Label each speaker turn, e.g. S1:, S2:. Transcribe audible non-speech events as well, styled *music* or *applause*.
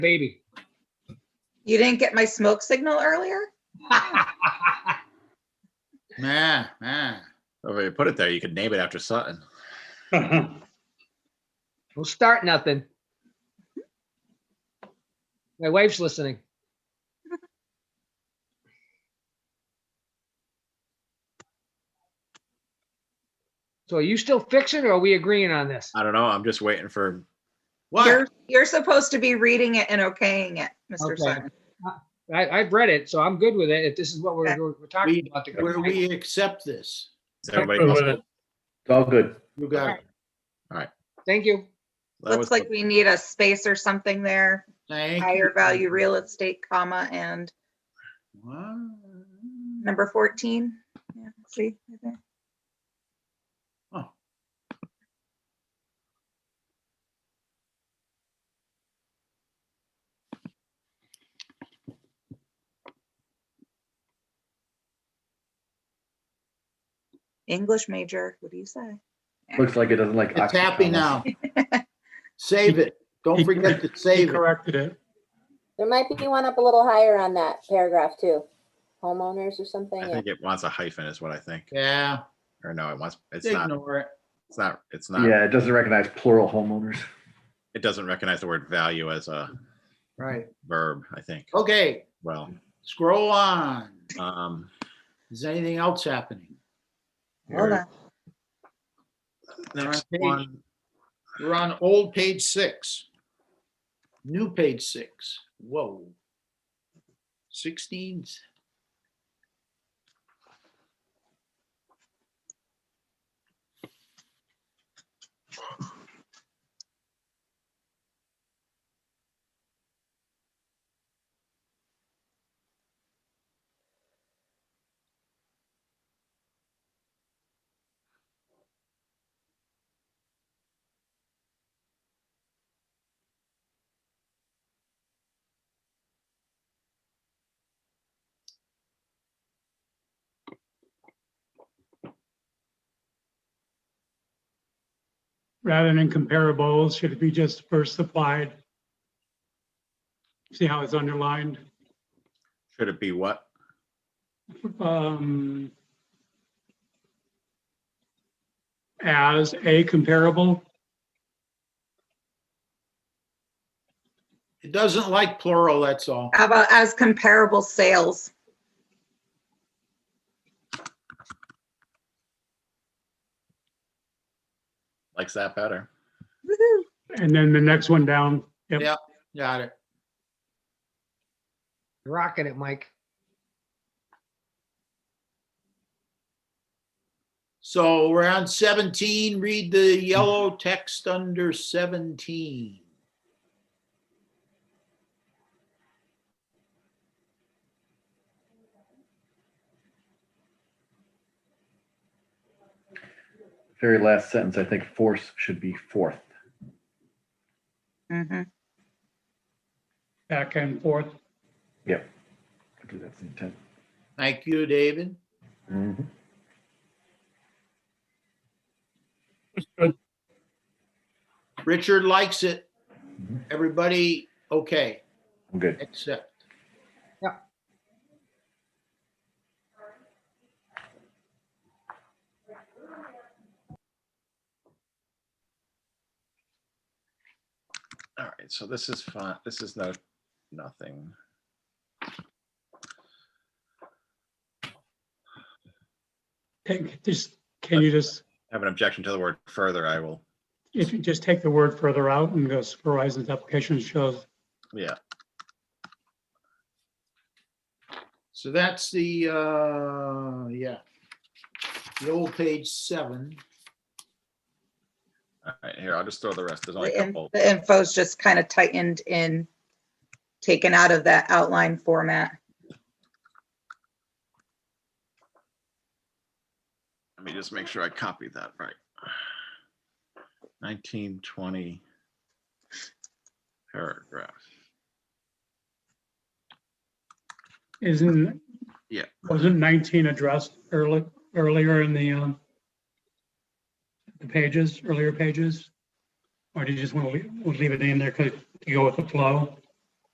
S1: baby. *laughs*
S2: You didn't get my smoke signal earlier?
S3: Nah, nah. If Oh, you put it there, you could name it after Sutton.
S1: Don't start nothing. My wife's listening. So are you still fixing or are we agreeing on this?
S3: I don't know. I'm just waiting for.
S2: You're, you're supposed to be reading it and okaying it, Mr.
S1: Okay.
S2: Sutton.
S1: I, I've read it, so I'm good with it. If this is what we're, we're talking
S4: We-
S1: about. to-
S4: Where we accept this.
S3: Is everybody else-
S5: All good.
S4: You got it.
S1: Thank you.
S3: that was-
S2: Looks like we need a space or something there,
S4: Thank you.
S2: higher value real estate, comma, and
S4: Wow.
S2: number 14. Yeah, See, right there. English major, what do you say?
S5: Looks like it doesn't like.
S4: It's happy
S5: oxycontins.
S4: now.
S3: *laughs*
S4: Save it. Don't forget to
S6: He
S4: save it.
S6: corrected it.
S7: There might be one up a little higher on that paragraph too. Homeowners or something.
S3: I
S7: yeah.
S3: think it wants a hyphen is what I think.
S4: Yeah,
S3: Or no, it wants, it's not,
S4: ignore it.
S3: it's not, it's not,
S5: Yeah, it doesn't recognize plural homeowners.
S3: it doesn't recognize the word value as a
S4: Right.
S3: verb, I think.
S4: Oh. Okay,
S3: Well,
S4: scroll on.
S3: um,
S4: Is anything else happening?
S2: Hold on.
S3: next
S4: page.
S3: one,
S4: We're on old page six. New page six. Whoa. Sixteens.
S6: Rather than comparables, should it be just first applied? See how it's underlined?
S3: should it be what?
S6: Um, As a comparable,
S4: It doesn't like plural, that's all.
S2: How about as comparable sales?
S3: Likes that better.
S2: Woohoo.
S6: and then the next one down. Yep.
S4: Yeah. Got it.
S1: You're Rocking it, Mike.
S4: So we're on seventeen. Read the yellow text under seventeen.
S5: Very last sentence, I think force should be fourth.
S2: Mhm.
S6: back and forth.
S5: Yep. I believe that's the intent.
S4: Thank you, David.
S5: Mhm.
S4: Richard likes it.
S5: Mhm.
S4: Everybody, okay,
S5: I'm good.
S4: except.
S1: Yeah.
S3: All right, so this is fine. This is no, nothing.
S6: Take, just, can you just,
S3: Have an objection to the word further, I will,
S6: if you just take the word further out and go supervisor's application shows,
S3: yeah.
S4: So that's the, uh, yeah. The old page seven.
S3: All right, here, I'll just throw the rest. There's only a
S2: The in-
S3: couple.
S2: the info's just kind of tightened in, taken out of that outline format.
S3: Let me just make sure I copied that right. Nineteen, twenty paragraph.
S6: isn't.
S3: Yeah.
S6: Wasn't 19 addressed early, earlier in the, um, the pages, earlier pages? Or do you just want to leave, leave it in there because to go with the flow?